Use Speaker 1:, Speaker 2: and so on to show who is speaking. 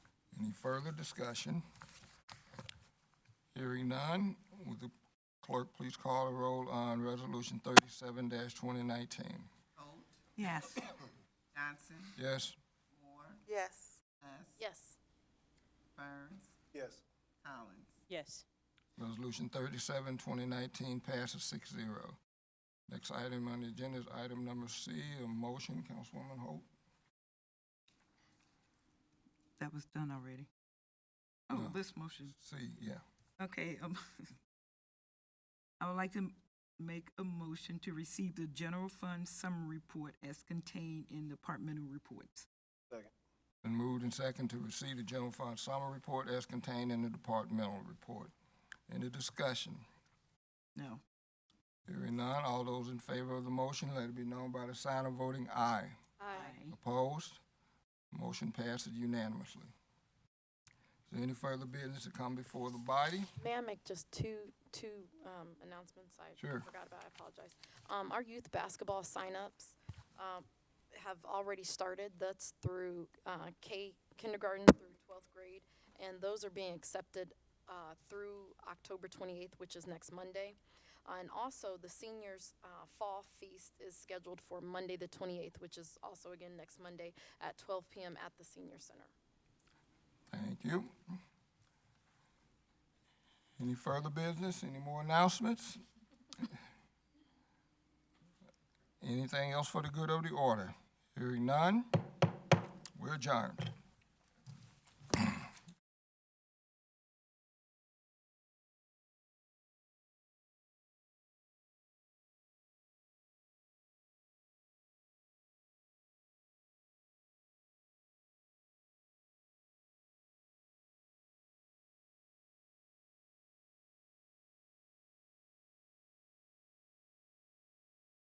Speaker 1: Any further discussion? Hearing none, would the clerk please call the roll on Resolution thirty-seven twenty nineteen?
Speaker 2: Holt,
Speaker 3: Yes.
Speaker 2: Johnson,
Speaker 1: Yes?
Speaker 2: Moore,
Speaker 3: Yes.
Speaker 2: Hess,
Speaker 4: Yes.
Speaker 2: Burns,
Speaker 5: yes,
Speaker 2: Collins.
Speaker 4: Yes.
Speaker 1: Resolution 37, 2019 passes 6-0. Next item on the agenda is item number C, a motion, Councilwoman Holt.
Speaker 3: That was done already. Oh,
Speaker 1: No.
Speaker 3: this motion,
Speaker 1: C, yeah.
Speaker 3: okay. um, I would like to m- make a motion to receive the general fund summary report as contained in departmental reports.
Speaker 5: second,
Speaker 1: Been moved and second to receive the general fund summary report as contained in the departmental report. Any discussion?
Speaker 3: No.
Speaker 1: Hearing none, all those in favor of the motion, let it be known by the sign of voting aye.
Speaker 4: Uh,
Speaker 3: Aye.
Speaker 1: Opposed? Motion passes unanimously. Is there any further business to come before the body?
Speaker 4: May I make just two, two um, announcements I
Speaker 1: Sure.
Speaker 4: forgot about, I apologize. Um, Our youth basketball signups um, have already started. That's through uh, K kindergarten through 12th grade. And those are being accepted uh, through October 28th, which is next Monday. Uh, And also, the seniors' uh, fall feast is scheduled for Monday, the 28th, which is also again next Monday at 12 PM at the senior center.
Speaker 1: Thank you. Any further business? Any more announcements? Anything else for the good of the order? Hearing none, we're adjourned.